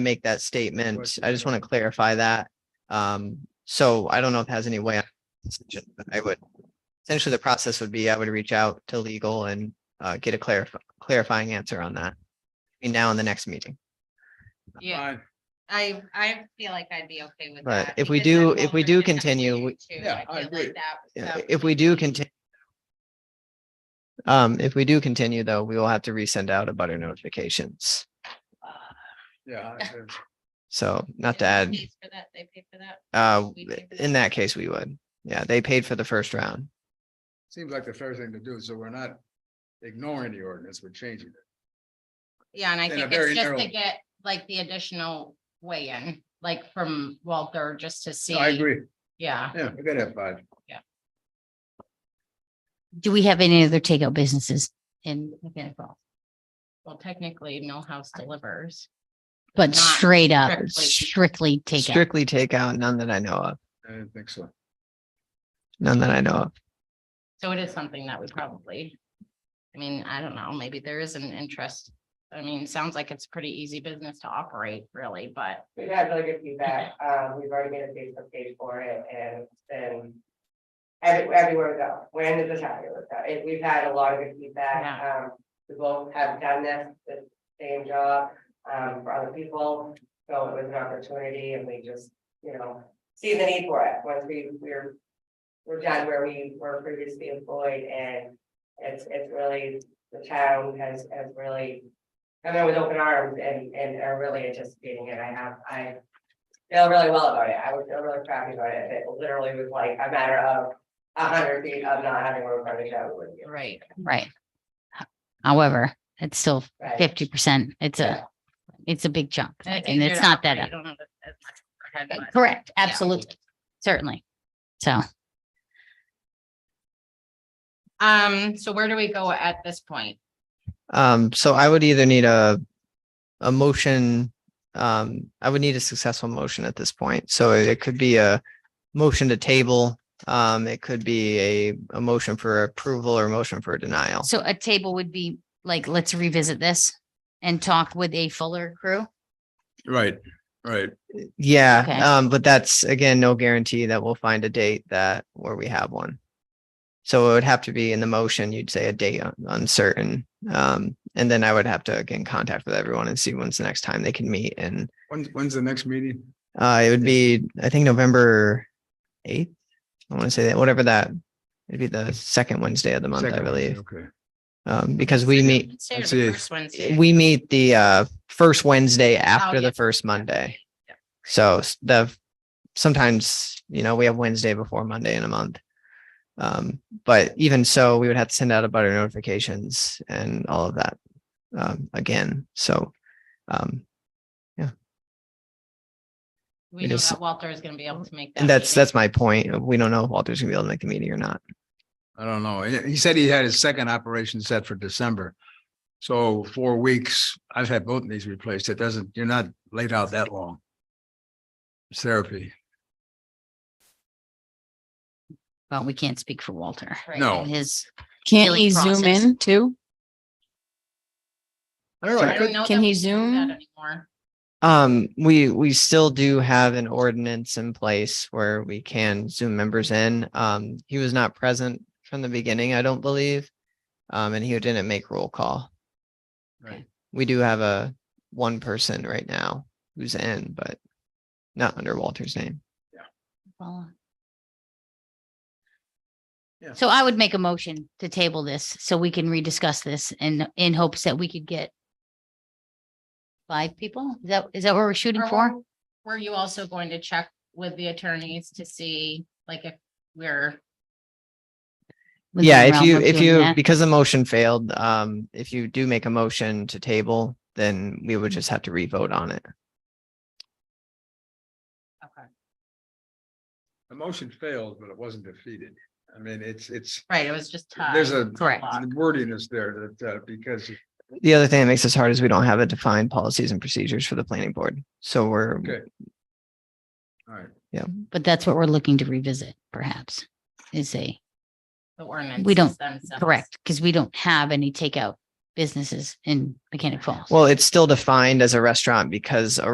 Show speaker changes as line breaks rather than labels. make that statement.
Question.
I just want to clarify that. Um, so I don't know if it has any way. on this agenda, but I would, essentially the process would be I would reach out to legal and uh, get a clarif- clarifying answer on that. between now in the next meeting,
Yeah,
Fine.
I, I feel like I'd be okay with
Right,
that.
if we
because
do-
I'm
if we
older
do
than
continue,
you
we-
too.
Yeah, I
feel like
agree.
that was
Yeah,
some-
if we do continue. Um, if we do continue though, we will have to resend out a butter notifications.
Yeah. I agree.
So not to
Who
add,
pays For that, they pay for that.
uh,
We do that.
in that case, we would. Yeah, they paid for the first round.
Seems like the fair thing to do, so we're not ignoring the ordinance, we're changing it.
Yeah, and I
In a
think
very
it's just
narrow-
to get like the additional weigh-in, like from Walter, just to see.
No, I agree.
Yeah,
Yeah, we gotta have five.
Do we have any other takeout businesses in Mechanic Falls?
well, technically, no house delivers. Not
But straight up,
strictly.
strictly takeout.
Strictly takeout, none that I know of,
I didn't think so.
none that I know of.
So it is something that we probably, I mean, I don't know, maybe there is an interest. I mean, it sounds like it's pretty easy business to operate really, but
We've had really good feedback. Um, we've already made a Facebook page for it and it's been every- everywhere we go. We're in the battalion with that. It- We've had a lot of good feedback. Um, we both have done this, the same job, um, for other people. So it was an opportunity and we just, you know, see the need for it. Once we, we're, we're done where we were previously employed and it's, it's really, the town has, has really come in with open arms and, and are really anticipating it. I have, I feel really well about it. I would feel really crappy about it. It literally was like a matter of a hundred feet of not having road frontage, I would do.
right.
Right. However, it's still
Right.
fifty percent. It's
Yeah.
a, it's a big chunk
I
and
think
it's
you're
not
operate-
that.
you don't have as much overhead, but-
Correct,
Yeah.
absolutely, certainly. So
Um, so where do we go at this point?
Um, so I would either need a, a motion, um, I would need a successful motion at this point. So it could be a motion to table. Um, it could be a, a motion for approval or motion for denial.
So a table would be like, let's revisit this and talk with a fuller crew.
Right, right.
Yeah,
Okay.
um, but that's again, no guarantee that we'll find a date that, where we have one. So it would have to be in the motion, you'd say a date un- uncertain. Um, and then I would have to get in contact with everyone and see when's the next time they can meet and
When's, when's the next meeting?
Uh, it would be, I think, November eighth. I want to say that, whatever that, it'd be the second Wednesday of the month, I
Second Wednesday,
believe.
Okay.
Um, because we meet,
Wednesday or the
That's it.
first Wednesday? Oh,
we meet the, uh, first Wednesday after
yeah.
the first Monday.
Yeah.
So s- the, sometimes, you know, we have Wednesday before Monday in a month. Um, but even so, we would have to send out about our notifications and all of that, um, again. So, um,
We
it
know
is-
that Walter is gonna be able to make. that
and that's,
meeting.
that's my point. We don't know if Walter's gonna be able to make the meeting or not.
I don't know. He he said he had his second operation set for December. So four weeks, I've had both of these replaced. It doesn't, you're not laid out that long. It's therapy.
Well, we can't speak for Walter
Right.
No.
and his,
Can't
healing
he zoom
process.
in too?
I don't know.
I
I
don't
could-
know
Can
that
he
we do that
zoom?
anymore.
Um, we, we still do have an ordinance in place where we can Zoom members in. Um, he was not present from the beginning, I don't believe. Um, and he didn't make roll call.
Right.
We do have a one person right now who's in, but not under Walter's name.
well.
Yeah.
So I would make a motion to table this so we can rediscuss this and in hopes that we could get five people? Is that, is that what we're shooting
Or
for?
were- Were you also going to check with the attorneys to see, like, if we're,
Within
Yeah,
the
if
realm
you,
of
if
doing
you,
that?
because the motion failed, um, if you do make a motion to table, then we would just have to re-vote on it.
okay,
The motion failed, but it wasn't defeated. I mean, it's, it's,
right, it was just. tied.
there's a
Correct.
the wording is there that, uh, because
The other thing that makes this hard is we don't have a defined policies and procedures for the planning board. So we're,
Okay. All right,
But that's what we're looking to revisit perhaps is a,
The ordinance.
don't- correct, because we don't have any takeout businesses in Mechanic Falls.
well, it's still defined as a restaurant because a